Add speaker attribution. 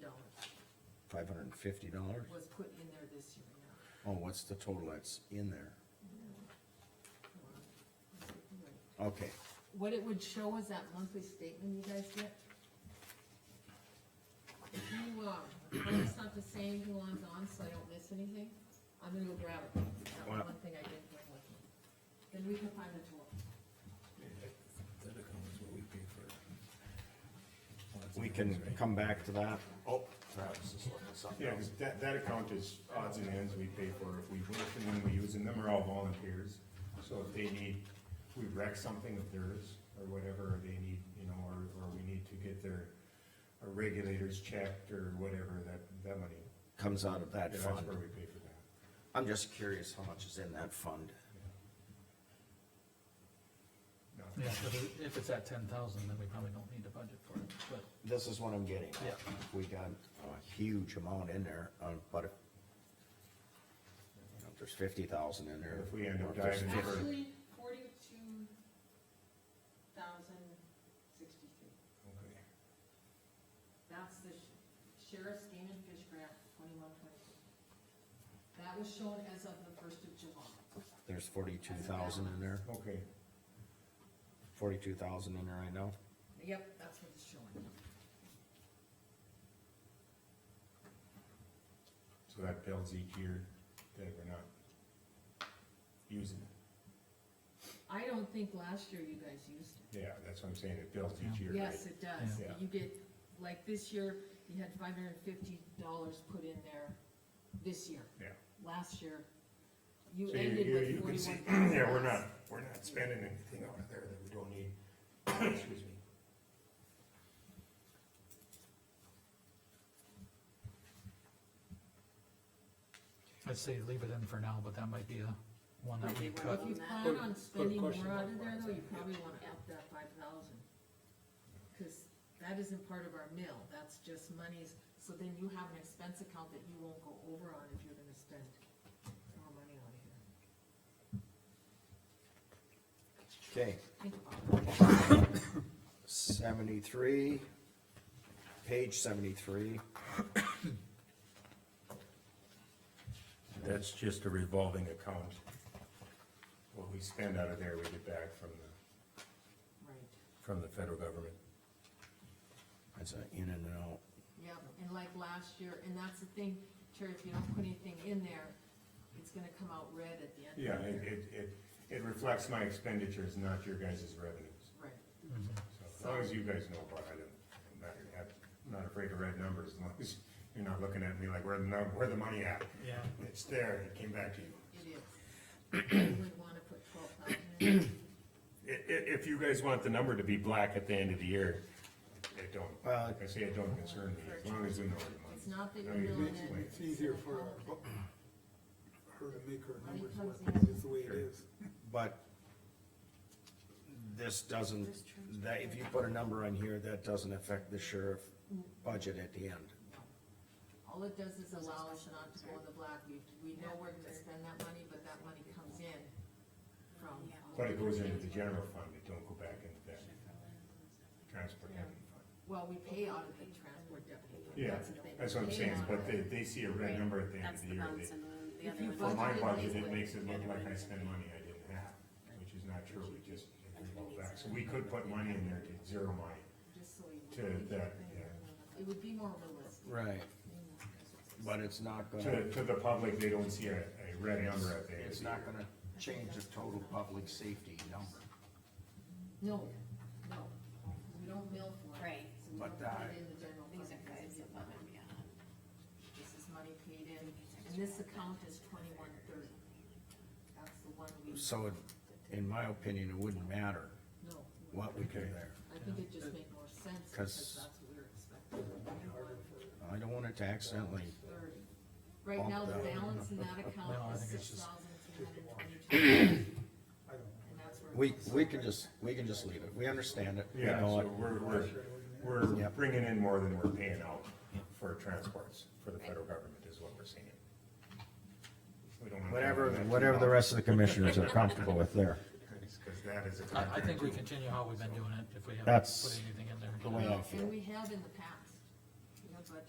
Speaker 1: dollars
Speaker 2: Five hundred and fifty dollars?
Speaker 1: was put in there this year, yeah.
Speaker 2: Oh, what's the total that's in there? Okay,
Speaker 1: What it would show is that monthly statement you guys get. If you, uh, oh, it's not the same who I'm on, so I don't miss anything, I'm gonna go grab it, that was
Speaker 2: Wow.
Speaker 1: one thing I didn't bring with me. Then we can find the tool.
Speaker 3: That account is what we pay for. Well, that's
Speaker 2: we
Speaker 3: the
Speaker 2: can
Speaker 3: difference, right?
Speaker 2: come back to that.
Speaker 4: Oh,
Speaker 2: Travis is looking at something
Speaker 4: yeah, cause that, that account is odds and ends we pay for if we work and when we use, and them are all volunteers. So if they need, if we wreck something of theirs or whatever, or they need, you know, or, or we need to get their our regulators checked or whatever, that, that money,
Speaker 2: Comes out of that
Speaker 4: that's
Speaker 2: fund.
Speaker 4: where we pay for that.
Speaker 2: I'm just curious how much is in that fund.
Speaker 4: No.
Speaker 3: Yeah, but if- if it's at ten thousand, then we probably don't need to budget for it, but
Speaker 2: This is what I'm getting at.
Speaker 3: Yeah.
Speaker 2: We got a huge amount in there, uh, but if, you know, if there's fifty thousand in there.
Speaker 4: If we end up
Speaker 2: or if there's
Speaker 4: diving
Speaker 2: fif-
Speaker 4: deeper.
Speaker 1: Actually, forty-two thousand sixty-three.
Speaker 4: Okay.
Speaker 1: That's the sh- sheriff's game and fish grant, twenty-one, twenty-two. That was shown as of the first of July.
Speaker 2: There's forty-two thousand in there,
Speaker 4: Okay,
Speaker 2: forty-two thousand in there right now.
Speaker 1: Yep, that's what it's showing.
Speaker 4: so that builds each year that we're not using it.
Speaker 1: I don't think last year you guys used it.
Speaker 4: Yeah, that's what I'm saying, it builds each year, right?
Speaker 1: Yes, it does.
Speaker 4: Yeah.
Speaker 1: You get, like this year, you had five hundred and fifty dollars put in there this year.
Speaker 4: Yeah.
Speaker 1: Last year, you
Speaker 4: So you,
Speaker 1: ended
Speaker 4: you,
Speaker 1: with
Speaker 4: you can see,
Speaker 1: forty-one thousand.
Speaker 4: yeah, we're not, we're not spending anything out of there that we don't need, excuse me.
Speaker 3: I'd say leave it in for now, but that might be a one that
Speaker 1: If
Speaker 3: we
Speaker 1: you
Speaker 3: cut.
Speaker 1: plan on spending more
Speaker 5: question
Speaker 1: out
Speaker 5: mark,
Speaker 1: of there
Speaker 5: why is
Speaker 1: though,
Speaker 5: that?
Speaker 1: you probably wanna up that five thousand. Cause that isn't part of our mill, that's just monies, so then you have an expense account that you won't go over on if you're gonna spend more money on here. Think
Speaker 2: Okay,
Speaker 1: about it.
Speaker 2: seventy-three, page seventy-three.
Speaker 4: That's just a revolving account. What we spend out of there, we get back from the,
Speaker 1: Right,
Speaker 4: from the federal government.
Speaker 2: That's an in and an out.
Speaker 1: yep, and like last year, and that's the thing, Terry, if you don't put anything in there, it's gonna come out red at the end.
Speaker 4: Yeah, it, it, it, it reflects my expenditures, not your guys' revenues.
Speaker 1: Right,
Speaker 4: So as long as you guys know what I do, I'm not, I'm not afraid of red numbers, as long as you're not looking at me like, where the, num- where the money at?
Speaker 3: Yeah.
Speaker 4: It's there, it came back to you.
Speaker 1: it is. You would wanna put twelve thousand in. there.
Speaker 4: I- i- if you guys want the number to be black at the end of the year, it don't,
Speaker 2: Well-
Speaker 4: like I say, it don't concern me, as long as we know
Speaker 1: It's
Speaker 4: the money.
Speaker 1: not that
Speaker 4: No,
Speaker 1: you're
Speaker 4: you
Speaker 1: milling
Speaker 4: didn't
Speaker 1: it.
Speaker 4: explain
Speaker 5: It's easier for her to make her numbers work, it's the way it is.
Speaker 2: But this doesn't, that, if you put a number on here, that doesn't affect the sheriff budget at the end.
Speaker 1: All it does is allow us not to go in the black, we, we know we're gonna spend that money, but that money comes in from.
Speaker 4: But it goes into the general fund, it don't go back into that transport levy fund.
Speaker 1: Well, we pay out of the transport deputy. fund,
Speaker 4: Yeah,
Speaker 1: the thing.
Speaker 4: that's what
Speaker 1: We
Speaker 4: I'm
Speaker 1: pay
Speaker 4: saying,
Speaker 1: out of
Speaker 4: but they, they see a red number at the end of
Speaker 6: That's the
Speaker 4: the year.
Speaker 6: bounce
Speaker 4: They-
Speaker 6: and the, the
Speaker 1: If you
Speaker 6: other
Speaker 4: For
Speaker 6: one.
Speaker 4: my
Speaker 1: Budgeted
Speaker 4: budget,
Speaker 1: this
Speaker 4: it
Speaker 1: way.
Speaker 4: makes it look like I spend money I didn't have, which is not true, we just, it goes back. So we could put money in there to zero money
Speaker 1: Just so you.
Speaker 4: to that, yeah.
Speaker 1: It would be more realistic.
Speaker 2: Right. But it's not gonna,
Speaker 4: To, to the public, they don't see a, a red number at the end of the year.
Speaker 2: it's not gonna change the total public safety number.
Speaker 1: No, no, we don't mill for it.
Speaker 6: Right.
Speaker 1: So we
Speaker 2: But
Speaker 1: don't put
Speaker 2: that-
Speaker 1: it in the general fund.
Speaker 6: These are guys above and beyond.
Speaker 1: This is money paid in, and this account is twenty-one thirty. That's the one we,
Speaker 2: So it- in my opinion, it wouldn't matter
Speaker 1: no,
Speaker 2: what we do there.
Speaker 1: I think it just made more sense, because
Speaker 2: 'Cause-
Speaker 1: that's what we were expecting.
Speaker 2: I don't want it to accidentally,
Speaker 1: thirty. Right now, the
Speaker 2: Bump that.
Speaker 1: balance in that
Speaker 3: No, I
Speaker 1: account is
Speaker 3: think it's
Speaker 1: six
Speaker 3: just-
Speaker 1: thousand three hundred twenty-two,
Speaker 5: I don't know.
Speaker 1: and that's where. it
Speaker 2: we,
Speaker 1: comes
Speaker 2: we
Speaker 1: from.
Speaker 2: can just, we can just leave it. We understand it. We
Speaker 4: Yeah,
Speaker 2: know
Speaker 4: so
Speaker 2: it.
Speaker 4: we're, we're, we're
Speaker 2: Yep.
Speaker 4: bringing in more than we're paying out for transports, for the federal government is what we're seeing. We don't wanna-
Speaker 2: Whatever, whatever the rest of the commissioners are comfortable with there.
Speaker 4: Cause that is a.
Speaker 3: I, I think we continue how we've been doing it, if we haven't
Speaker 2: That's
Speaker 3: put anything in there.
Speaker 2: the way I
Speaker 1: Well,
Speaker 2: feel.
Speaker 1: And we have in the past.